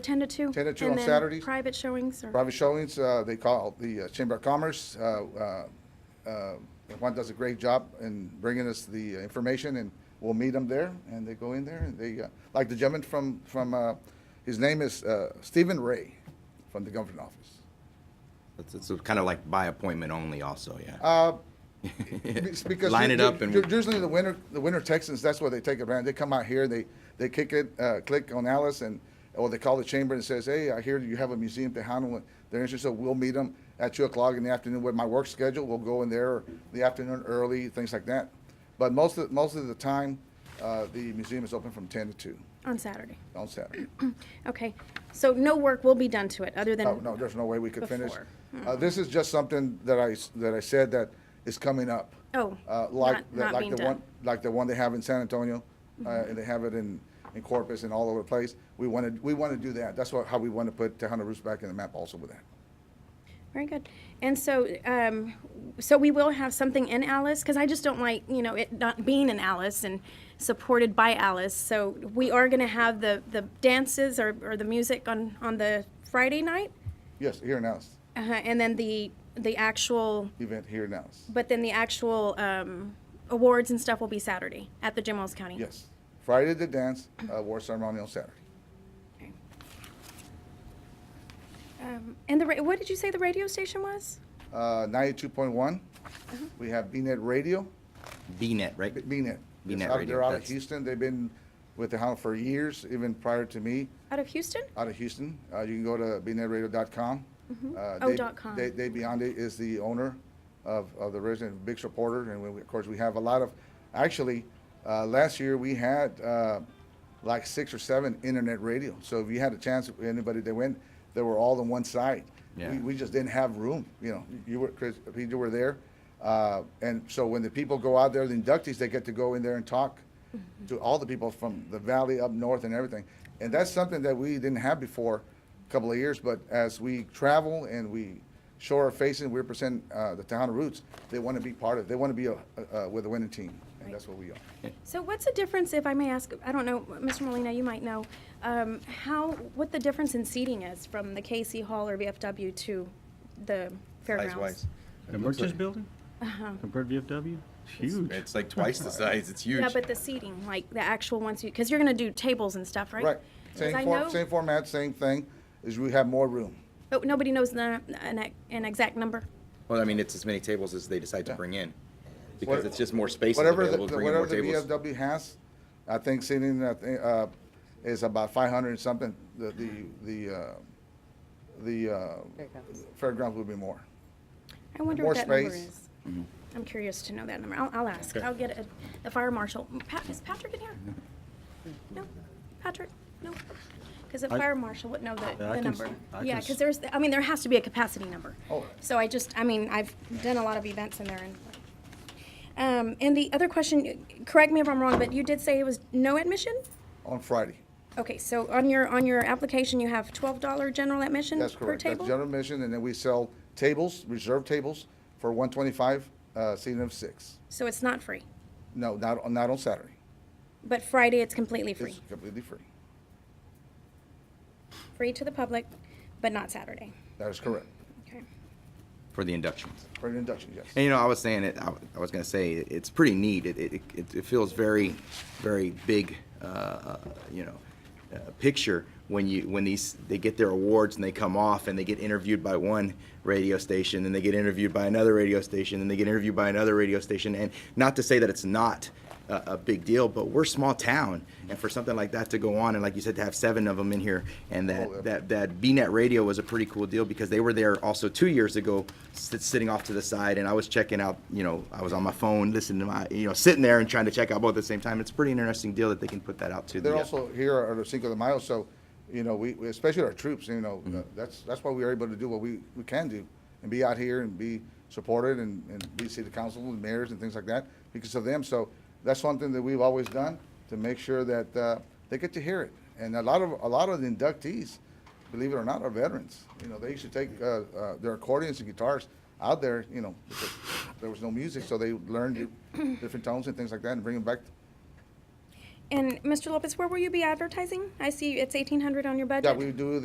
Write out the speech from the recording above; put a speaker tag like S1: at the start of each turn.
S1: 10 to 2.
S2: 10 to 2
S1: and
S2: on
S1: then
S2: Saturdays?
S1: Private showings or,
S2: Private showings, uh, they call the uh, Chamber of Commerce. uh, uh, uh, Juan does a great job in bringing us the information, and we'll meet them there, and they go in there, and they, uh, like the gentleman from, from, uh, his name is uh, Stephen Ray from the government office.
S3: It's, it's kind of like by appointment only also, yeah.
S2: Uh, It's because
S3: Line
S2: u-
S3: it
S2: u-
S3: up and.
S2: u- usually the winter the winter Texans that's what they take advantage. They come out here, they they kick it, uh, click on Alice, and or they call the chamber and says, "Hey, I hear you have a museum to handle it. They're interested. so We'll meet them at two o'clock in the afternoon with my work schedule. We'll go in there the afternoon early, things like that. But most of most of the time, uh, the museum is open from ten to two
S1: on Saturday.
S2: on Saturday.
S1: Okay, so no work will be done to it, other
S2: No,
S1: than,
S2: Oh, no, there's no way we could finish.
S1: Before. Hmm.
S2: Uh, this is just something that I, s- that I said that is coming up.
S1: Oh,
S2: Uh, like,
S1: not-
S2: the-
S1: not
S2: like
S1: being
S2: the one,
S1: done. Mm-hmm.
S2: like the one they have in San Antonio, uh, and they have it in, in Corpus and all over the place. We wanted, we want to do that. That's what, how we want to put Tejano Roots back in the map also with that.
S1: very good. And so, um, so we will have something in Alice, because I just don't like, you know, it not being in Alice and supported by Alice. So we are going to have the, the dances or, or the music on, on the Friday night,
S2: Yes, here in Alice,
S1: uh-huh, and then the, the actual,
S2: event here in Alice.
S1: but then the actual um, awards and stuff will be Saturday at the Jim Wells County.
S2: Yes. Friday the dance, uh, war ceremony on Saturday.
S1: Um, And the, ra- what did you say the radio station was?
S2: Uh, ninety-two point one,
S1: Mm-hmm.
S2: we have BNet Radio,
S3: BNet, right?
S2: B- BNet. It's
S3: BNet
S2: out-
S3: Radio,
S2: They're out of
S3: that's-
S2: Houston. They've been with Tejano for years, even prior to me.
S1: Out of Houston?
S2: out of Houston. Uh, you can go to bnetradio.com. Uh,
S1: Oh,
S2: Dave-
S1: dot com.
S2: Dave, Dave Biondi is the owner of, of the resident big supporter, and we, of course we have a lot of. Actually, uh, last year we had uh, like six or seven internet radio. So if you had a chance, anybody that went, they were all on one side.
S3: Yeah.
S2: We, we just didn't have room. You know, you were Chris, you were there, uh, and so when the people go out there, the inductees, they get to go in there and talk
S1: Mm-hmm.
S2: to all the people from the valley up north and everything. And that's something that we didn't have before a couple of years, but as we travel and we show our faces, we represent uh, the Tejano roots, they want to be part of, they want to be a- a- a- with a winning team, and that's what we are.
S1: So what's the difference, if I may ask, I don't know, Mr. Molina, you might know, um, how, what the difference in seating is from the KC Hall or VFW to the fairgrounds?
S3: Size-wise.
S4: The
S3: It looks
S4: merchants
S3: like-
S4: building? Compared to VFW? It's huge.
S3: It's like twice the size, it's huge.
S1: Yeah, but the seating, like the actual ones you, because you're gonna do tables and stuff, right?
S2: Right,
S1: 'Cause
S2: same
S1: I
S2: form,
S1: know-
S2: same format, same thing, is we have more room.
S1: But nobody knows the, an, ex- an exact number.
S3: Well, I mean, it's as many tables as they decide to bring in, because
S2: What-
S3: it's just more space
S2: Whatever, the
S3: available,
S2: the-
S3: bring in more
S2: whatever the
S3: tables.
S2: VFW has, I think seating, I thi- uh, is about five hundred and something, the, the, the, uh, the, uh, fairgrounds would be more.
S1: I wonder
S2: More
S1: what that number
S2: space.
S1: is.
S4: Mm-hmm.
S1: I'm curious to know that number. I'll, I'll ask. I'll get a- the fire marshal. Pat, is Patrick in here? No? Patrick? No? Because the
S4: I-
S1: fire marshal would know the,
S4: Yeah, I
S1: the
S4: can s-
S1: number.
S4: I can
S1: Yeah,
S4: s-
S1: because there's, I mean, there has to be a capacity number.
S2: Oh.
S1: So I just, I mean, I've done a lot of events in there and. Um, and the other question, correct me if I'm wrong, but you did say it was no admission?
S2: on Friday.
S1: Okay, so on your, on your application, you have twelve dollar general admission per
S2: That's
S1: table?
S2: correct. That's general admission, and then we sell tables, reserve tables, for one twenty-five, uh, seating of six.
S1: So it's not free,
S2: No, not, on not on Saturday.
S1: but Friday it's completely free?
S2: It's completely free.
S1: free to the public, but not Saturday.
S2: That is correct.
S1: Okay.
S3: For the inductions.
S2: For an induction, yes.
S3: And you know, I was saying it. I, I was gonna say it, it's pretty neat. It, it, it, it feels very, very big. Uh, uh, you know, uh, picture when you when these they get their awards and they come off and they get interviewed by one radio station and they get interviewed by another radio station and they get interviewed by another radio station. And not to say that it's not a, a big deal, but we're a small town, and for something like that to go on and like you said to have seven of them in here and that
S2: Oh, yeah.
S3: that that BNet Radio was a pretty cool deal because they were there also two years ago, sit, sitting off to the side, and I was checking out. You know, I was on my phone listening to my, you know, sitting there and trying to check out both at the same time. It's a pretty interesting deal that they can put that out to.
S2: They're
S3: the, uh,
S2: also here are the Cinco de Mayo, so, you know, we, we- especially our troops, you know, uh, that's, that's why we are able to do what we, we can do and be out here and be supported and, and be city council and mayors and things like that because of them. So that's one thing that we've always done to make sure that, uh, they get to hear it. And a lot of, a lot of the inductees, believe it or not, are veterans. You know, they used to take, uh, uh, their accordions and guitars out there, you know, because there was no music, so they learned different tones and things like that and bring them back
S1: And Mr. Lopez, where will you be advertising? I see it's eighteen hundred on your budget.
S2: Yeah, we do